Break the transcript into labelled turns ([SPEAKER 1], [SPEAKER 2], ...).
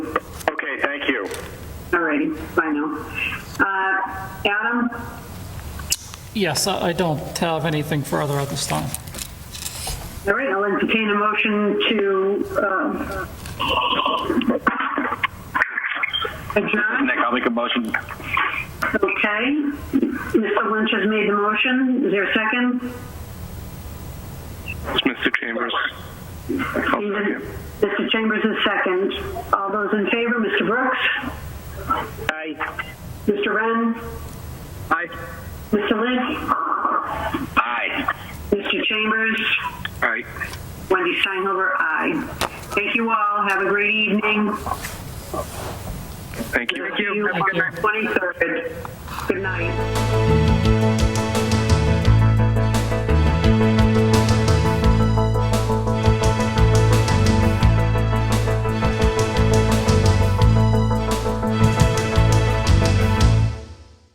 [SPEAKER 1] Thank you.
[SPEAKER 2] All righty, bye now. Uh, Adam,
[SPEAKER 3] Yes, I I don't have anything further at this time.
[SPEAKER 2] all right, I'll entertain a motion to um, adjourn.
[SPEAKER 1] Nick, I'll make a motion.
[SPEAKER 2] Okay. Mr. Lynch has made the motion. Is there a second?
[SPEAKER 4] It's Mr. Chambers. I'll second.
[SPEAKER 2] Mr. Chambers is second. All those in favor, Mr. Brooks?
[SPEAKER 1] Aye.
[SPEAKER 2] Mr. Wren?
[SPEAKER 1] Aye.
[SPEAKER 2] Mr. Lynch?
[SPEAKER 1] Aye.
[SPEAKER 2] Mr. Chambers?
[SPEAKER 4] Aye.
[SPEAKER 2] Wendy Steinhover, aye. Thank you all. Have a great evening.
[SPEAKER 4] Thank you.
[SPEAKER 2] Thank you.
[SPEAKER 3] Have a good night.
[SPEAKER 2] 23rd. Good night.